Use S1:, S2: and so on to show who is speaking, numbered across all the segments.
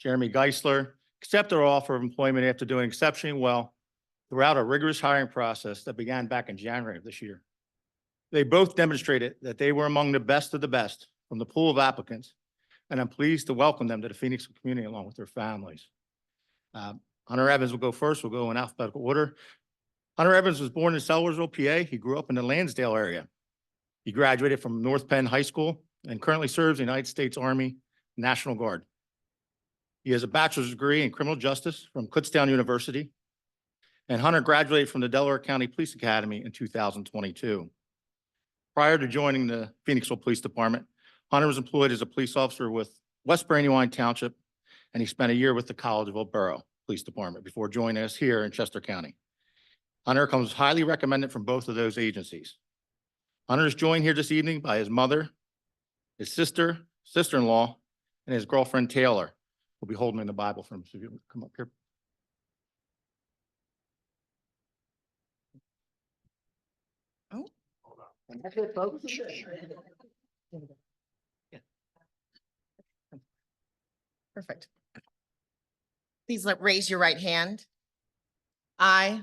S1: Jeremy Geisler, accept their offer of employment after doing exceptionally well throughout a rigorous hiring process that began back in January of this year. They both demonstrated that they were among the best of the best from the pool of applicants, and I'm pleased to welcome them to the Phoenix community along with their families. Uh, Hunter Evans will go first. We'll go in alphabetical order. Hunter Evans was born in Sellersville, PA. He grew up in the Lansdale area. He graduated from North Penn High School and currently serves the United States Army National Guard. He has a bachelor's degree in criminal justice from Kutztown University. And Hunter graduated from the Delaware County Police Academy in two thousand twenty-two. Prior to joining the Phoenixville Police Department, Hunter was employed as a police officer with West Brandywine Township, and he spent a year with the Collegeville Borough Police Department before joining us here in Chester County. Hunter comes highly recommended from both of those agencies. Hunter is joined here this evening by his mother, his sister, sister-in-law, and his girlfriend Taylor we will be holding the Bible for him. So if you would come up here.
S2: Oh. Perfect. Please let, raise your right hand. I.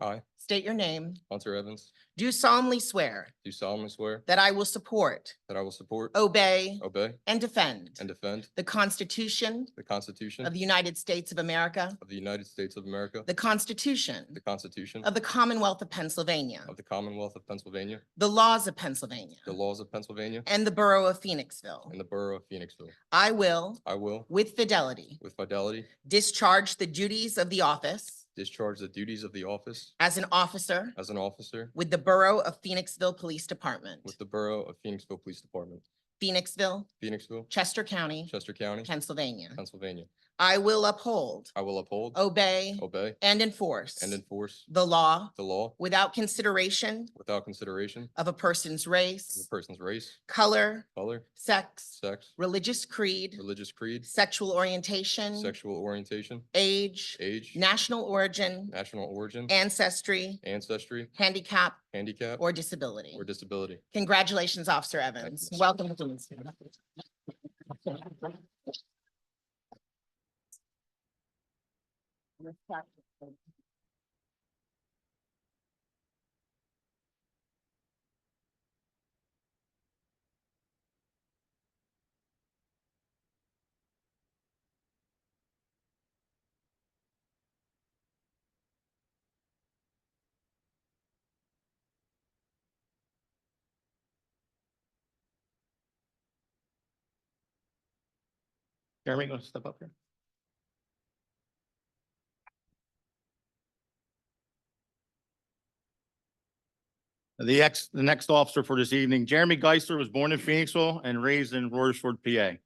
S3: I.
S2: State your name.
S3: Hunter Evans,
S2: Do solemnly swear
S3: do solemnly swear
S2: that I will support,
S3: that I will support,
S2: Oh. obey,
S3: obey,
S2: and defend
S3: and defend
S2: the Constitution
S3: the Constitution
S2: of the United States of America,
S3: of the United States of America,
S2: the Constitution
S3: the Constitution
S2: of the Commonwealth of Pennsylvania,
S3: of the Commonwealth of Pennsylvania,
S2: the laws of Pennsylvania,
S3: the laws of Pennsylvania,
S2: and the Borough of Phoenixville.
S3: and the Borough of Phoenixville.
S2: I will,
S3: I will,
S2: with fidelity,
S3: with fidelity,
S2: discharge the duties of the office
S3: discharge the duties of the office
S2: as an officer
S3: as an officer
S2: with the Borough of Phoenixville Police Department,
S3: with the Borough of Phoenixville Police Department,
S2: Phoenixville,
S3: Phoenixville,
S2: Chester County,
S3: Chester County,
S2: Pennsylvania.
S3: Pennsylvania.
S2: I will uphold,
S3: I will uphold,
S2: Oh. obey,
S3: obey,
S2: and enforce
S3: and enforce
S2: the law
S3: the law
S2: without consideration
S3: without consideration
S2: of a person's
S3: of a
S2: race,
S3: person's race,
S2: color,
S3: color,
S2: sex,
S3: sex,
S2: religious creed,
S3: religious creed,
S2: sexual orientation,
S3: sexual orientation,
S2: age,
S3: age,
S2: national origin,
S3: national origin,
S2: ancestry,
S3: ancestry,
S2: handicap,
S3: handicap,
S2: or disability.
S3: or disability.
S2: Congratulations, Officer Evans.
S3: you.
S2: Welcome to Deansville.
S1: Jeremy, you want to step up here? The ex, the next officer for this evening, Jeremy Geisler was born in Phoenixville and raised in Royersford, PA.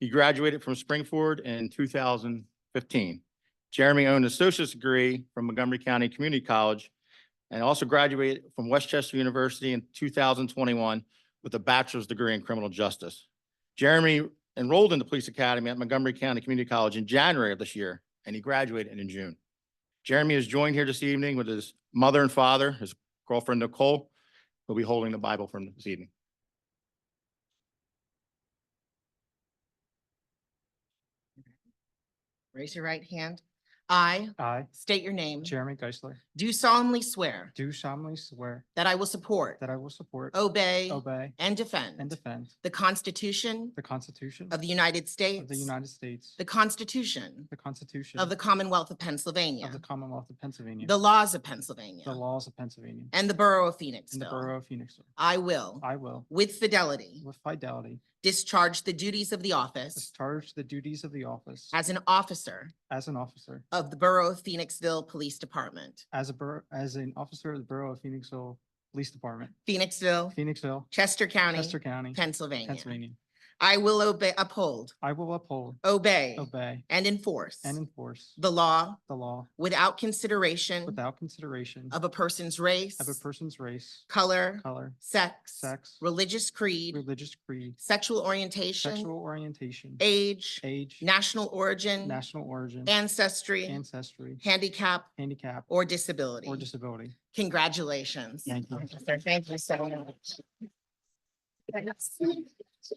S1: He graduated from Springford in two thousand fifteen. Jeremy owned an associate's degree from Montgomery County Community College and also graduated from Westchester University in two thousand twenty-one with a bachelor's degree in criminal justice. Jeremy enrolled in the police academy at Montgomery County Community College in January of this year, and he graduated in June. Jeremy is joined here this evening with his mother and father, his girlfriend Nicole, who'll be holding the Bible for him this evening.
S2: Raise your right hand. I
S4: I,
S2: state your name.
S4: Jeremy Geisler,
S2: Do solemnly swear
S4: do solemnly swear
S2: that I will support,
S4: that I will support,
S2: obey,
S4: obey,
S2: and
S4: and
S2: defend
S4: defend
S2: the Constitution
S4: the Constitution
S2: of the United
S4: of the
S2: States,
S4: United States,
S2: the Constitution
S4: the Constitution
S2: of the Commonwealth of
S4: of the
S2: Pennsylvania,
S4: Commonwealth of Pennsylvania,
S2: the laws of
S4: the
S2: Pennsylvania,
S4: laws of Pennsylvania,
S2: and the Borough of
S4: and the
S2: Phoenixville.
S4: Borough of Phoenixville.
S2: I will,
S4: I will,
S2: with fidelity,
S4: with fidelity,
S2: discharge the duties of the office
S4: discharge the duties of the office
S2: as an officer
S4: as an officer,
S2: of the Borough of Phoenixville Police Department,
S4: as a bor- as an officer of the Borough of Phoenixville Police Department,
S2: Phoenixville,
S4: Phoenixville,
S2: Chester County,
S4: Chester County,
S2: Pennsylvania.
S4: Pennsylvania.
S2: I will obey, uphold,
S4: I will uphold,
S2: obey,
S4: obey,
S2: and enforce
S4: and enforce
S2: the law
S4: the law
S2: without consideration
S4: without consideration
S2: of a person's race,
S4: of a person's race,
S2: color,
S4: color,
S2: sex,
S4: sex,
S2: religious creed,
S4: religious creed,
S2: sexual orientation,
S4: sexual orientation,
S2: age,
S4: age,
S2: national origin,
S4: national origin,
S2: ancestry,
S4: ancestry,
S2: handicap,
S4: handicap,
S2: or
S4: or
S2: disability.
S4: disability.
S2: Congratulations.
S4: Thank you.
S2: Officer, Thank you so much.